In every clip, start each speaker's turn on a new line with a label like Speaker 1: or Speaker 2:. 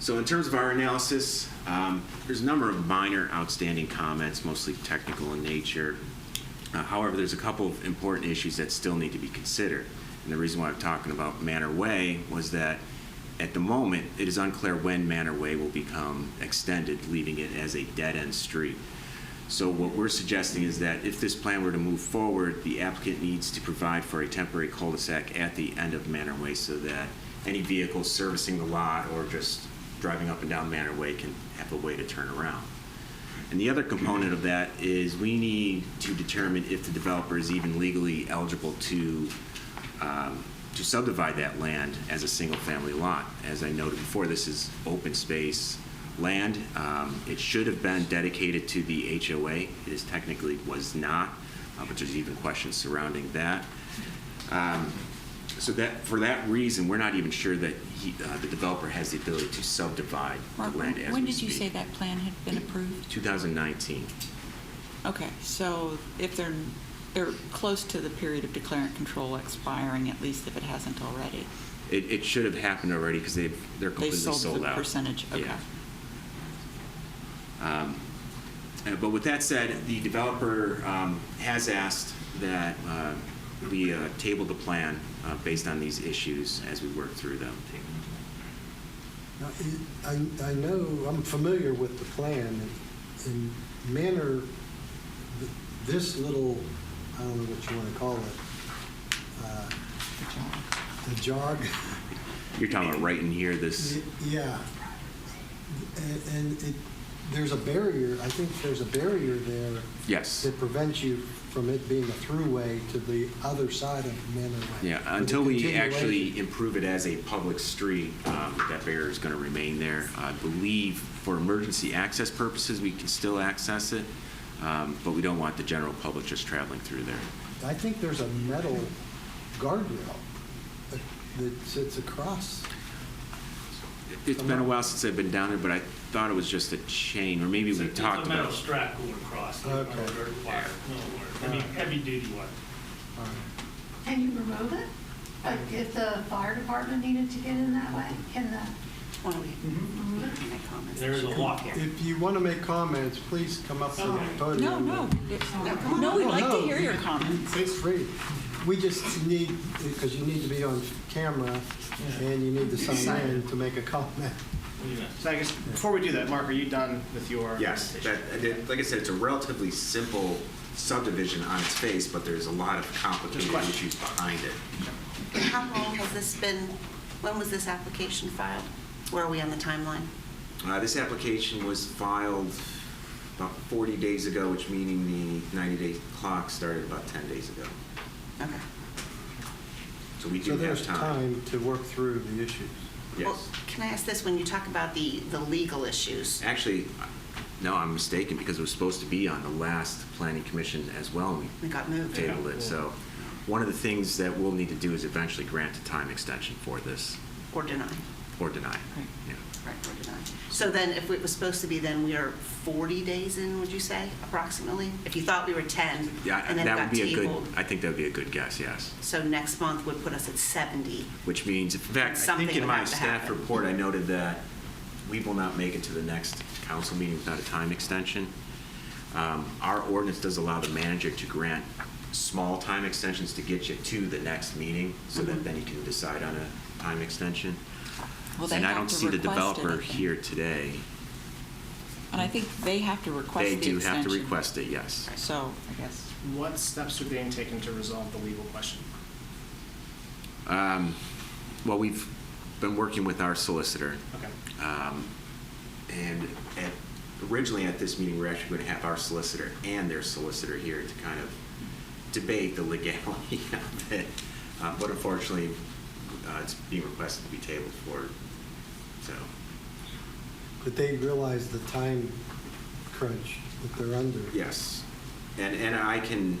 Speaker 1: So in terms of our analysis, um, there's a number of minor outstanding comments, mostly technical in nature. Uh, However, there's a couple of important issues that still need to be considered. And the reason why I'm talking about Manor Way was that at the moment, it is unclear when Manor Way will become extended, leaving it as a dead-end street. So what we're suggesting is that if this plan were to move forward, the applicant needs to provide for a temporary cul-de-sac at the end of Manor Way so that any vehicle servicing the lot or just driving up and down Manor Way can have a way to turn around. And the other component of that is we need to determine if the developer is even legally eligible to, um, to subdivide that land as a single-family lot. As I noted before, this is open space land. Um, It should have been dedicated to the HOA. It is technically was not, uh, but there's even questions surrounding that. Um, So that, for that reason, we're not even sure that he, uh, the developer has the ability to subdivide the
Speaker 2: Mark,
Speaker 1: land as we speak.
Speaker 2: when when did you say that plan had been approved?
Speaker 1: 2019.
Speaker 2: Okay, so if they're, they're close to the period of declarant control expiring, at least if it hasn't already.
Speaker 1: It, it should have happened already because they've, they're
Speaker 2: They
Speaker 1: completely sold
Speaker 2: sold
Speaker 1: out.
Speaker 2: the percentage, okay.
Speaker 1: Yeah. Um, uh, But with that said, the developer um, has asked that uh, we uh, table the plan uh, based on these issues as we work through them.
Speaker 3: Now, I, I I know, I'm familiar with the plan, and- and Manor, th- this little, I don't know what you want to call it, uh,
Speaker 2: Good job.
Speaker 3: the jog,
Speaker 1: You're talking about right in here, this,
Speaker 3: yeah. And- And it, there's a barrier, I think there's a barrier there
Speaker 1: yes.
Speaker 3: that prevents you from it being a throughway to the other side of Manor Way.
Speaker 1: Yeah,
Speaker 3: With the
Speaker 1: until we
Speaker 3: continuation.
Speaker 1: actually improve it as a public street, um, that barrier is going to remain there. I believe for emergency access purposes, we can still access it, um, but we don't want the general public just traveling through there.
Speaker 3: I think there's a metal guardrail that- that sits across.
Speaker 1: It's been a while since I've been down there, but I thought it was just a chain, or maybe we
Speaker 4: It's a-
Speaker 1: talked
Speaker 4: It's a metal
Speaker 1: about.
Speaker 4: strap going across, or
Speaker 3: Okay.
Speaker 4: dirt wire, no wire, I mean, heavy-duty wire.
Speaker 3: All right.
Speaker 5: Can you remove it? Like if the fire department needed to get in that way, can the,
Speaker 6: Why don't we
Speaker 5: Mhm.
Speaker 6: make any comments?
Speaker 4: There is a lock here.
Speaker 3: If you want to make comments, please come up to the
Speaker 5: Sorry.
Speaker 2: No,
Speaker 3: podium.
Speaker 2: no,
Speaker 6: come on.
Speaker 2: no, we'd
Speaker 3: No,
Speaker 2: like to
Speaker 3: no.
Speaker 2: hear your comments.
Speaker 3: Feel free. We just need, because you need to be on camera and you need to sign in to make a comment.
Speaker 4: What do you mean?
Speaker 7: So I guess, before we do that, Mark, are you done with your?
Speaker 1: Yes, that,
Speaker 7: presentation?
Speaker 1: that- like I said, it's a relatively simple subdivision on its face, but there's a lot of complicated
Speaker 7: Just question.
Speaker 1: issues behind it.
Speaker 6: And How long has this been, when was this application filed? Where are we on the timeline?
Speaker 1: Uh, this application was filed about 40 days ago, which meaning the 90-day clock started about 10 days ago.
Speaker 6: Okay.
Speaker 1: So we do
Speaker 3: So
Speaker 1: have
Speaker 3: there's
Speaker 1: time.
Speaker 3: time to work through the issues.
Speaker 6: Well,
Speaker 1: Yes.
Speaker 6: Can I ask this, when you talk about the, the legal issues,
Speaker 1: Actually, no, I'm mistaken, because it was supposed to be on the last planning commission as well, and we
Speaker 6: we got moved?
Speaker 1: tabled it, so one of the things that we'll need to do is eventually grant a time extension for this,
Speaker 6: Or denied?
Speaker 1: or deny it.
Speaker 2: Right.
Speaker 1: Yeah.
Speaker 6: Right, or denied. So then, if it was supposed to be, then we are 40 days in, would you say, approximately? If you thought we were 10,
Speaker 1: Yeah,
Speaker 6: and then it
Speaker 1: that would
Speaker 6: got
Speaker 1: be a good,
Speaker 6: tabled.
Speaker 1: I think that would be a good guess, yes.
Speaker 6: So next month would put us at 70.
Speaker 1: Which means, in fact, I
Speaker 6: Something
Speaker 1: think in
Speaker 6: would
Speaker 1: my
Speaker 6: have to
Speaker 1: staff
Speaker 6: happen.
Speaker 1: report, I noted that we will not make it to the next council meeting without a time extension. Um, Our ordinance does allow the manager to grant small time extensions to get you to the next meeting, so that
Speaker 2: Mm-hmm.
Speaker 6: Mhm.
Speaker 1: then you can decide on a time extension.
Speaker 2: Well, they
Speaker 1: And I
Speaker 2: have
Speaker 1: don't
Speaker 2: to
Speaker 1: see the
Speaker 2: request it, I
Speaker 1: developer
Speaker 2: think.
Speaker 1: here today.
Speaker 2: And I think they have to request the
Speaker 1: They
Speaker 2: extension.
Speaker 1: do have to request it, yes.
Speaker 2: So, I guess,
Speaker 7: What steps are being taken to resolve the legal question?
Speaker 1: Um, Well, we've been working with our solicitor.
Speaker 7: Okay.
Speaker 1: Um, And at- originally at this meeting, we're actually going to have our solicitor and their solicitor here to kind of debate the legality of it. Uh, But unfortunately, uh, it's being requested to be tabled for, so,
Speaker 3: But they realize the time crunch that they're under.
Speaker 1: yes. And, and I can,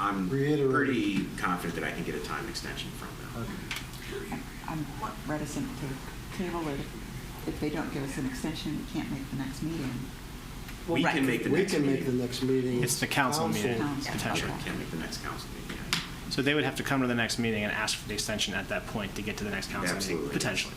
Speaker 1: I'm
Speaker 3: Reiterate.
Speaker 1: pretty confident that I can get a time extension from them.
Speaker 3: Okay.
Speaker 2: I'm reticent to table it. If they don't give us an extension, we can't make the next meeting.
Speaker 6: Well,
Speaker 1: We
Speaker 6: right.
Speaker 1: can make the
Speaker 3: We
Speaker 1: next
Speaker 3: can
Speaker 1: meeting.
Speaker 3: make the next meeting.
Speaker 7: It's the council meeting,
Speaker 2: Council.
Speaker 1: Yeah,
Speaker 7: potentially.
Speaker 2: Okay.
Speaker 1: Can make the next council meeting, yeah.
Speaker 7: So they would have to come to the next meeting and ask for the extension at that point to get to the next council meeting,
Speaker 1: Absolutely.
Speaker 7: potentially.